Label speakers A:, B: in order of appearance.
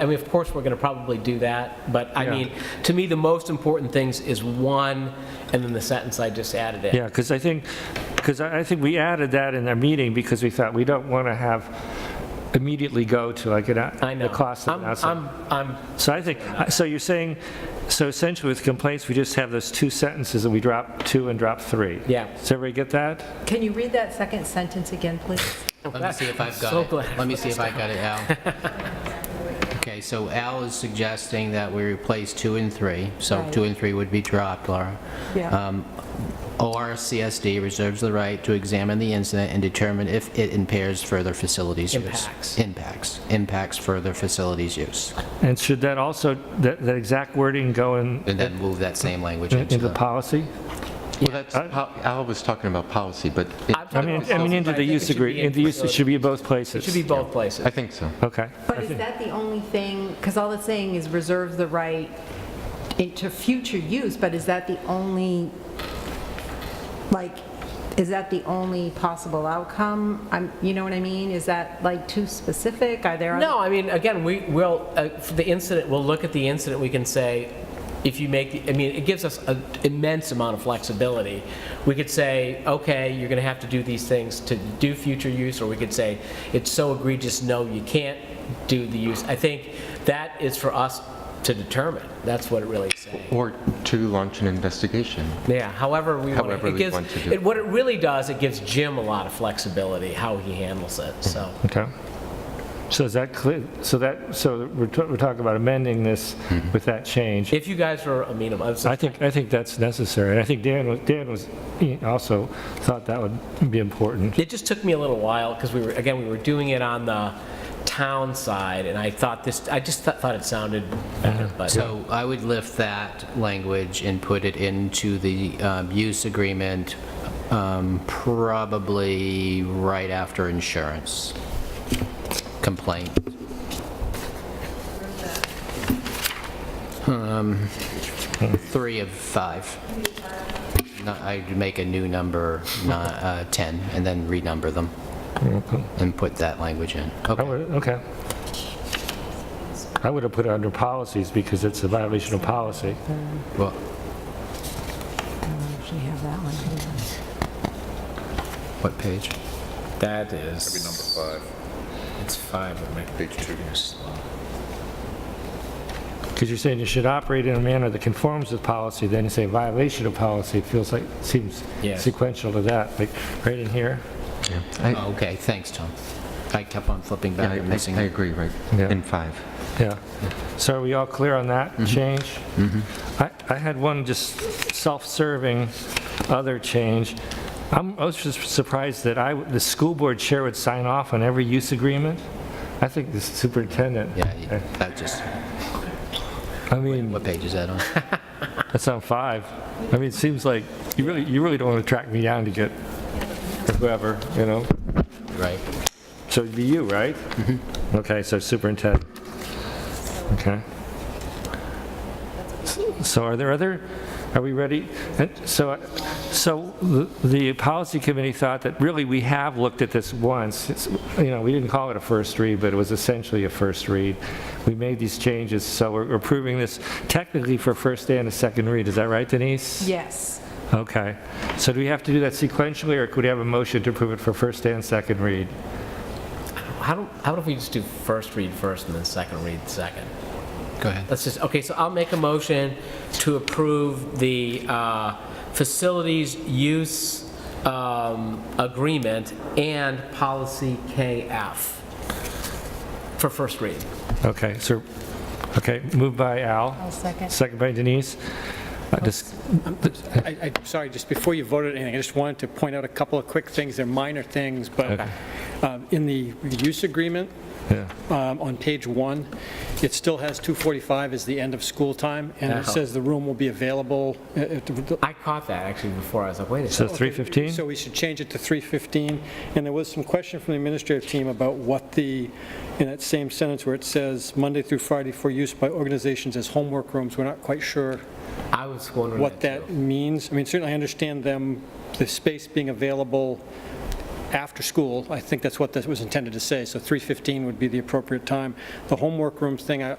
A: I mean, of course, we're going to probably do that, but I
B: Yeah.
A: mean, to me, the most important things is one, and then the sentence I just added in.
B: Yeah, because I think, because I I think we added that in our meeting because we thought we don't want to have immediately go to like an out-
A: I know.
B: the cost of
A: I'm-
B: an outside.
A: I'm, I'm,
B: So I think, so you're saying, so essentially with complaints, we just have those two sentences and we drop two and drop three?
A: Yeah.
B: Does everybody get that?
C: Can you read that second sentence again, please?
D: Let me see if I've got
A: so
D: it.
A: glad.
D: Let me see if I got it, Al. Okay, so Al is suggesting that we replace two and three, so
C: Right.
D: two and three would be dropped, Laura.
C: Yeah.
D: Um, ORCSD reserves the right to examine the incident and determine if it impairs further facilities use.
A: Impacts.
D: Impacts. Impacts further facilities use.
B: And should that also, that that exact wording go in,
D: And then move that same language into
B: into the
D: the...
B: policy?
E: Well, that's, po- Al was talking about policy, but
A: I'm
E: it-
B: I
A: talking
B: mean,
A: about
B: I mean,
A: policy,
B: into
A: but I
B: the
A: think it
B: use
A: should
B: agree,
A: be in
B: into use, it
A: facilities.
B: should be both places.
A: It should be both places.
E: I think so.
B: Okay.
C: But is that the only thing, because all it's saying is reserve the right into future use, but is that the only, like, is that the only possible outcome? I'm, you know what I mean? Is that like too specific? Are there? other-
A: No, I mean, again, we will, uh, for the incident, we'll look at the incident, we can say, if you make, the- I mean, it gives us an immense amount of flexibility. We could say, okay, you're going to have to do these things to do future use, or we could say, it's so egregious, no, you can't do the use. I think that is for us to determine, that's what it really is saying.
E: Or to launch an investigation.
A: Yeah, however we want it.
E: However
A: It
E: we
A: gives,
E: want to do
A: it-
E: it.
A: what it really does, it gives Jim a lot of flexibility, how he handles it, so.
B: Okay. So is that clear, so that, so we're ta- we're talking about amending this with that change?
A: If you guys are amenable, I'm
B: I
A: sorry.
B: think, I think that's necessary. I think Dan, was- Dan was, he also thought that would be important.
A: It just took me a little while, because we were, again, we were doing it on the town side, and I thought this, I just thought thought it sounded better, but
D: So I would lift that language and put it into the um, use agreement, um, probably right after insurance complaint. Um, Three of five. No, I'd make a new number, ni- uh, 10, and then renumber them, and put that language in.
B: I
D: Okay.
B: would, okay. I would have put it under policies because it's a violation of policy.
D: Well,
C: I actually have that one. Hold on.
D: what page?
A: that is,
F: Number five,
A: it's five of me.
F: page two.
B: Because you're saying you should operate in a manner that conforms with policy, then you say violation of policy, it feels like, seems
A: Yes.
B: sequential to that, like right in here.
E: I,
D: Oh, Okay, thanks, Tom. I kept on flipping
E: yeah,
D: back
E: I
D: and missing.
E: I agree, right?
B: Yeah.
E: In five.
B: Yeah. So are we all clear on that change? I, I had one just self-serving other change. I'm I was just surprised that I, the school board chair would sign off on every use agreement. I think the superintendent.
D: Yeah, you- that just,
B: I mean,
D: what page is that on?
B: that's on five. I mean, it seems like, you really, you really don't want to track me down to get whoever, you know?
D: Right.
B: So it'd be you, right? Okay, so superintendent. Okay. So are there other, are we ready? And So, so the- the policy committee thought that really we have looked at this once. It's- You know, we didn't call it a first read, but it was essentially a first read. We made these changes, so we're approving this technically for first and a second read. Is that right, Denise?
C: Yes.
B: Okay. So do we have to do that sequentially, or could we have a motion to approve it for first and second read?
A: How do, how about if we just do first read first and then second read second?
D: Go ahead.
A: Let's just, okay, so I'll make a motion to approve the uh, facilities use um, agreement and policy KF for first read.
B: Okay, so, okay, moved by
C: I'll
B: Al,
C: second.
B: second by Denise. Uh, dis-
G: I, I, sorry, just before you voted anything, I just wanted to point out a couple of quick things. They're minor things, but um, in the use agreement,
B: yeah.
G: um, on page one, it still has 2:45 as the end of school time, and it
A: Uh-huh.
G: says the room will be available at- at the-
A: I caught that actually before, I was like, wait a
B: So
A: second.
B: 315?
G: So we should change it to 3:15. And there was some question from the administrative team about what the, in that same sentence where it says Monday through Friday for use by organizations as homework rooms, we're not quite sure
A: I was wondering
G: what
A: that
G: that
A: too.
G: means. I mean, certainly I understand them, the space being available after school. I think that's what this was intended to say, so 3:15 would be the appropriate time. The homework room thing, I